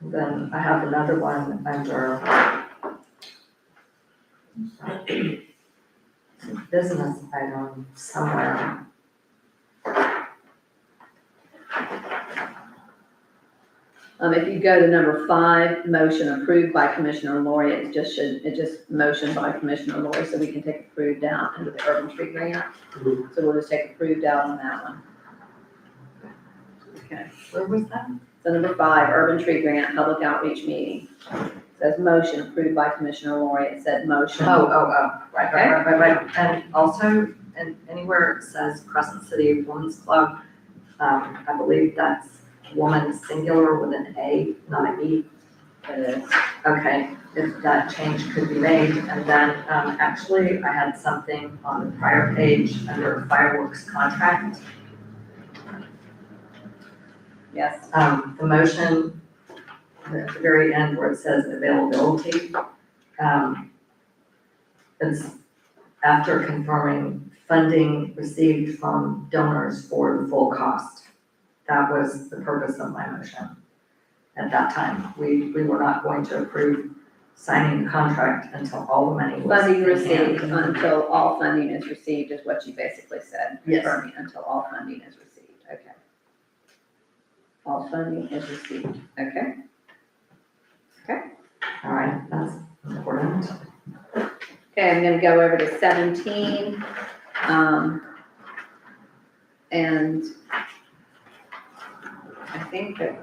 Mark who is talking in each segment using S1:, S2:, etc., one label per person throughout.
S1: then I have another one uh, under business item somewhere.
S2: Um, if you go to number five, motion approved by Commissioner Lori, it just should, it just motion by Commissioner Lori, so we can take approved out under the urban tree grant. So we'll just take approved out on that one. Okay,
S1: Where was that?
S2: so number five, urban tree grant, public outreach meeting. Says motion approved by Commissioner Lori, it said motion.
S1: Oh, oh, oh, right, right, right, right, right. And also, and anywhere it says Crescent City Women's Club, um, I believe that's woman singular with an A, not an E.
S2: It is.
S1: Okay, if that change could be made, and then, um, actually, I had something on the prior page under fireworks contract.
S2: Yes,
S1: Um, the motion, at the very end where it says availability, um, it's after confirming funding received from donors for the full cost. That was the purpose of my motion. At that time, we, we were not going to approve signing the contract until all the money was.
S2: funding received until all funding is received is what you basically said.
S1: Yes.
S2: Confirming until all funding is received, okay. All funding is received, okay.
S1: All right, that's important.
S2: Okay, I'm gonna go over to seventeen. Um, and I think that,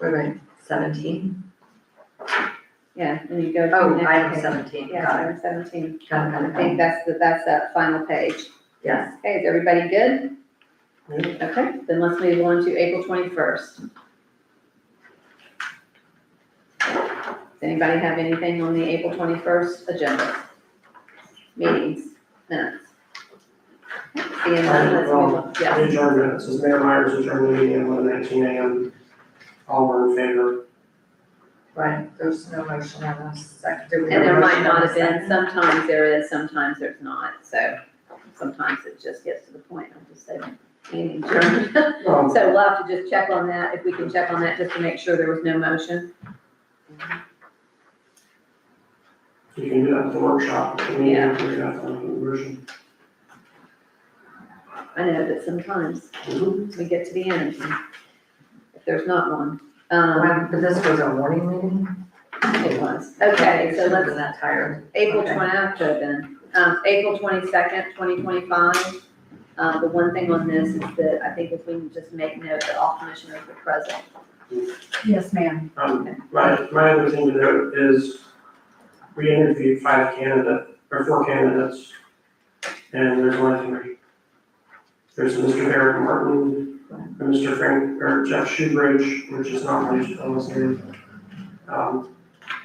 S1: Wait, wait, seventeen?
S2: yeah, and you go to the
S1: Oh,
S2: next
S1: item
S2: page.
S1: seventeen,
S2: Yeah,
S1: got it,
S2: item seventeen.
S1: got it, got
S2: I
S1: it, got it.
S2: think that's the, that's that final page.
S1: yes.
S2: Okay, is everybody good?
S1: Yep.
S2: Okay, then let's move on to April twenty-first. Does anybody have anything on the April twenty-first agenda? Meetings, minutes? Seeing none, let's move on, yes,
S3: Adjournment, this is Mayor Myers adjourned the meeting at one nineteen AM. All were in favor.
S1: Right, there's no motion on this, second, did we?
S2: and there might
S1: motion on
S2: not
S1: the
S2: have been,
S1: second?
S2: sometimes there is, sometimes there's not, so sometimes it just gets to the point, I'm just saying, meeting adjourned.
S3: Um,
S2: So we'll have to just check on that, if we can check on that, just to make sure there was no motion.
S3: You can do that at the workshop, I mean, you
S2: Yeah.
S3: can do that at the version.
S2: I know that sometimes
S3: Mhm.
S2: we get to the end, and if there's not one, um,
S1: Well, But this was a morning meeting?
S2: it was. Okay, so
S1: Should've been
S2: let's,
S1: that tired.
S2: April
S1: Okay.
S2: twenty, I could have been, um, April twenty-second, twenty twenty-five. Uh, the one thing on this is that I think if we can just make note that all commissioners were present.
S4: Yes, ma'am.
S3: Um, my, my other thing to note is we interviewed five candidate, or four candidates, and there's only three. There's Mr. Eric Martin, and Mr. Frank, or Jeff Shoebridge, which is not my, almost name. Um,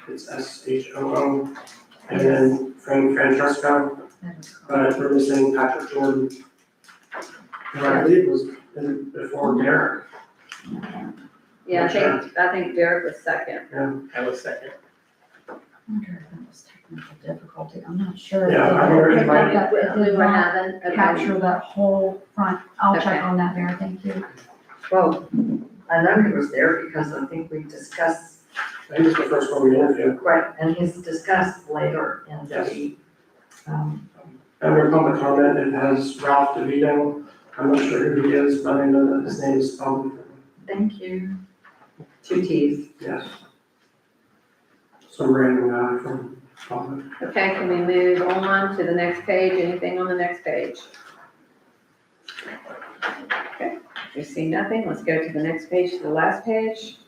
S3: it's S H O O, and then Frank Francesco. but we're missing Patrick Jordan. Who I believe was in- before Derek.
S2: Yeah, I think, I think Derek was second.
S5: I was second.
S4: I wonder if that was technical difficulty. I'm not sure. if
S3: Yeah, I
S4: they
S3: wonder if
S4: picked
S3: I-
S4: up that it
S2: We
S4: did
S2: were
S4: not
S2: having, okay,
S4: Capture that whole front. I'll
S2: Okay.
S4: check on that, Mayor. Thank you.
S1: Well, I know he was there because I think we discussed,
S3: I think it's the first one we interviewed.
S1: right, and he's discussed later in the, um,
S3: Under public comment, it has Ralph DeVito. I'm not sure who he is, but I know that his name is public.
S1: thank you. Two Ts.
S3: Yes. Some random guy from uh, public.
S2: okay, can we move on to the next page, anything on the next page? Okay, we see nothing, let's go to the next page, to the last page.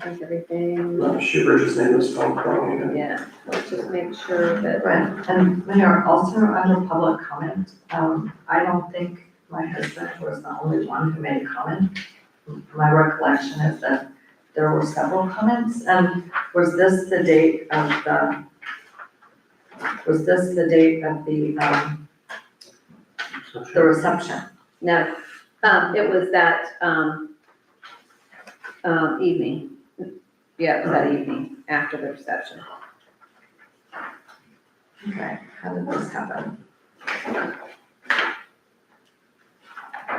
S2: I think everything,
S3: No, Shoebridge's name is public. wrong,
S2: yeah, let's just make sure that,
S1: Right, and um, Mayor, also under public comment, um, I don't think my husband was the only one who made a comment. My recollection is that there were several comments, and was this the date of the, was this the date of the, um, the
S3: again.
S1: reception?
S2: no, um, it was that, um, um, evening. Yeah, it was that evening, after the reception.
S1: Okay, how did this happen?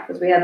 S2: Because we had the